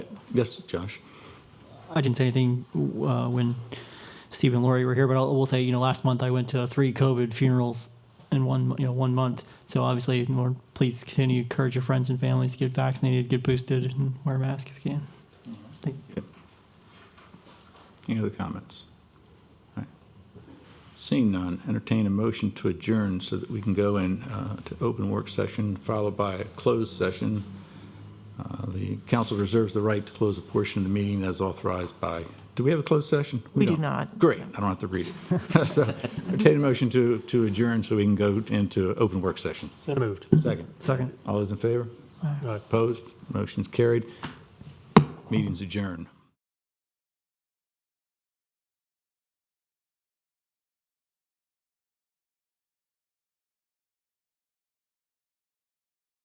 Yes, Josh. I didn't say anything uh, when Steve and Lori were here, but I'll, we'll say you know last month I went to three COVID funerals in one you know one month. So obviously, more please continue to encourage your friends and families to get vaccinated, get boosted, and wear a mask if you can. Thank you. Any other comments? All right. Seeing none, entertain a motion to adjourn so that we can go in uh, to open work session followed by a closed session. Uh, The council reserves the right to close a portion of the meeting as authorized by, do we have a closed session? We do don't. not. Great, I don't have to read it. So entertain a motion to to adjourn so we can go into open work session. So moved. Second. Second. All those in favor? Aye. Opposed? Motion's carried. Meeting's adjourned.